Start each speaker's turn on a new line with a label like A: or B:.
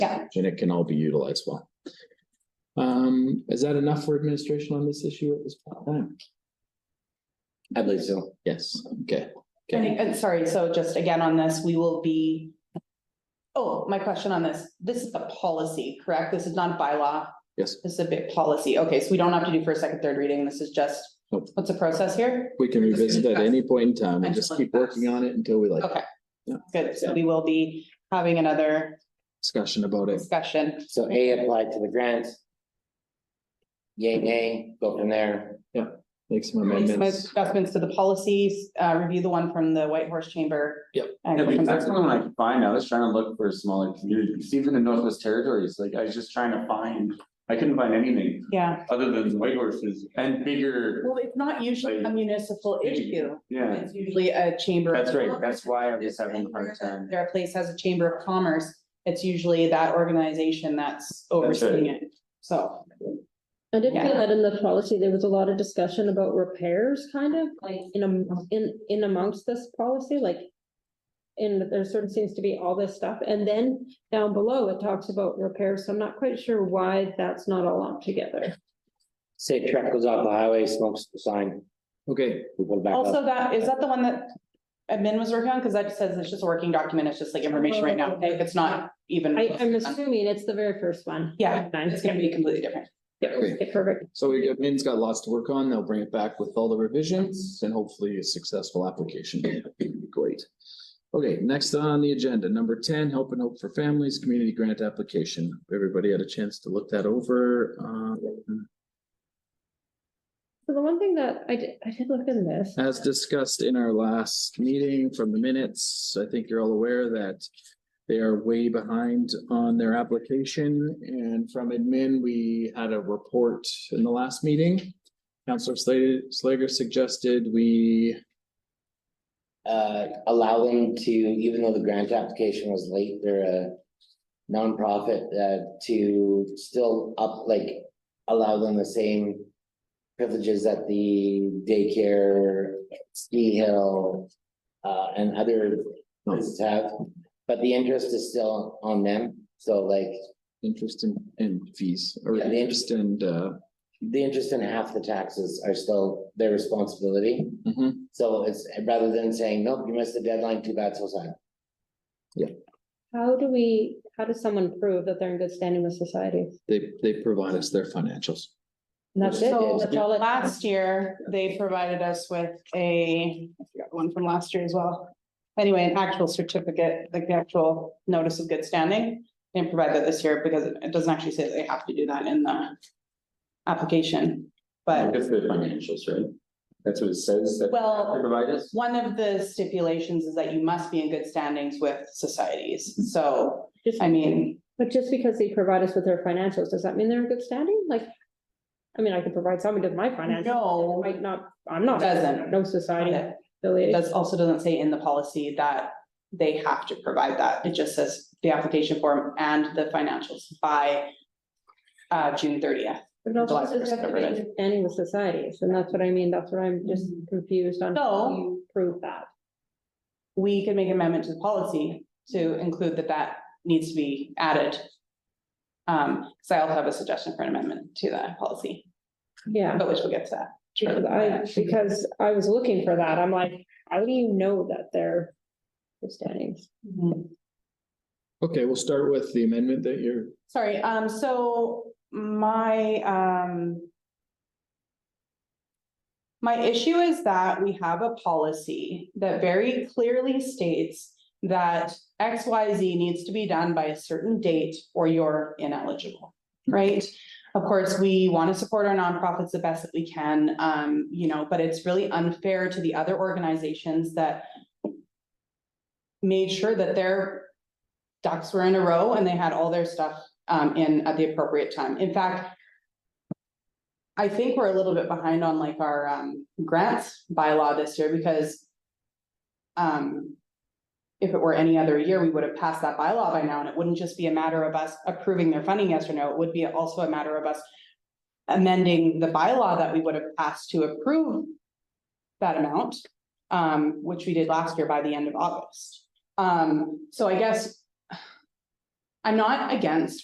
A: Yeah.
B: And it can all be utilized well. Um, is that enough for administration on this issue at this point in time?
C: Uh, I believe so.
B: Yes, okay.
A: And,
B: Okay,
A: and sorry, so just again on this, we will be. Oh, my question on this, this is a policy, correct? This is not a bylaw,
B: yes,
A: this is a bit policy. Okay, so we don't have to do first, second, third reading. This is just,
B: Nope.
A: what's the process here?
B: we can revisit at any point in time. We'll
A: Until
B: just
A: it
B: keep working on it until we like
A: Okay.
B: Yeah.
A: Good, so we will be having another
B: discussion about it.
A: discussion.
C: So A applied to the grant. Yay, nay, go from there.
B: Make some
A: Make some
B: amendments.
A: Adjustments to the policies, uh, review the one from the White Horse Chamber.
B: Yep.
A: and go
D: Yeah,
A: from
D: because
A: there.
D: that's the only one I can find. I was trying to look for smaller communities, even in Northwest Territories, like I was just trying to find, I couldn't find anything
A: Yeah,
D: other than white horses and bigger,
A: well, it's not usually a municipal issue.
D: yeah.
A: It's usually a chamber.
D: That's right. That's why I was having a hard
A: If
D: time.
A: Their place has a chamber of commerce, it's usually that organization that's overseeing it, so.
E: I did
A: Yeah.
E: feel that in the policy, there was a lot of discussion about repairs, kind of, like, in, am- in, in amongst this policy, like. And there sort of seems to be all this stuff, and then down below, it talks about repairs, so I'm not quite sure why that's not all lumped together.
C: Say truck goes off the highway, smokes the sign,
B: Okay,
C: we go back
A: Also,
C: up.
A: that, is that the one that admin was working on? Because that says it's just a working document, it's just like information right now, like, it's not even.
E: I, I'm assuming it's the very first one.
A: Yeah, It's gonna be completely different.
E: Okay, perfect,
B: so we, admin's got lots to work on. They'll bring it back with all the revisions and hopefully a successful application. Great. Okay, next on the agenda, number ten, Help and Hope for Families Community Grant Application. Everybody had a chance to look that over. Um,
E: so the one thing that I did, I did look in this,
B: As discussed in our last meeting from the minutes, I think you're all aware that they are way behind on their application and from admin, we had a report in the last meeting. Counselor Slater, Slager suggested we,
C: Uh, allow them to, even though the grant application was late, they're a nonprofit, uh, to still up, like, allow them the same privileges that the daycare, ski hill, uh, and other
B: no,
C: businesses have, but the interest is still on them. So like,
B: interest in, in fees or
C: Yeah, the
B: interest and, uh,
C: the interest in half the taxes are still their responsibility.
B: mhm.
C: So it's rather than saying, nope, you missed the deadline, too bad, so sad.
E: how do we, how does someone prove that they're in good standing with society?
B: they, they provide us their financials.
E: And that's it,
A: So
E: that's all it.
A: last year, they provided us with a, I forgot one from last year as well. Anyway, an actual certificate, like the actual notice of good standing. They didn't provide that this year because it it doesn't actually say that they have to do that in the application. But
D: It's the financials, right? That's what it says that
A: Well-
D: they provide us.
A: one of the stipulations is that you must be in good standings with societies. So,
E: Just-
A: I mean,
E: But just because they provide us with their financials, does that mean they're in good standing? Like, I mean, I could provide somebody with my financials,
A: no,
E: might not, I'm not.
A: Doesn't.
E: No society
A: it
E: affiliated.
A: does, also doesn't say in the policy that they have to provide that. It just says the application form and the financials by uh, June thirtieth.
E: But it also
A: July
E: says you have to be
A: 1st,
E: in good Standing with societies, and that's what I mean, that's what I'm just confused on. how
A: Mm-hmm. So-
E: you Prove that.
A: We can make an amendment to the policy to include that that needs to be added. Um, so I'll have a suggestion for an amendment to that policy,
E: Yeah,
A: but which we'll get to that.
E: because I, because I was looking for that, I'm like, how do you know that they're good standings?
B: Okay, we'll start with the amendment that you're,
A: Sorry, um, so my, um. My issue is that we have a policy that very clearly states that X, Y, Z needs to be done by a certain date or you're ineligible, right? Of course, we want to support our nonprofits the best that we can, um, you know, but it's really unfair to the other organizations that made sure that their ducks were in a row and they had all their stuff um in at the appropriate time. In fact. I think we're a little bit behind on like our um grants bylaw this year because. Um. If it were any other year, we would have passed that bylaw by now, and it wouldn't just be a matter of us approving their funding, yes or no, it would be also a matter of us. Amending the bylaw that we would have passed to approve. That amount, um, which we did last year by the end of August. Um, so I guess I'm not against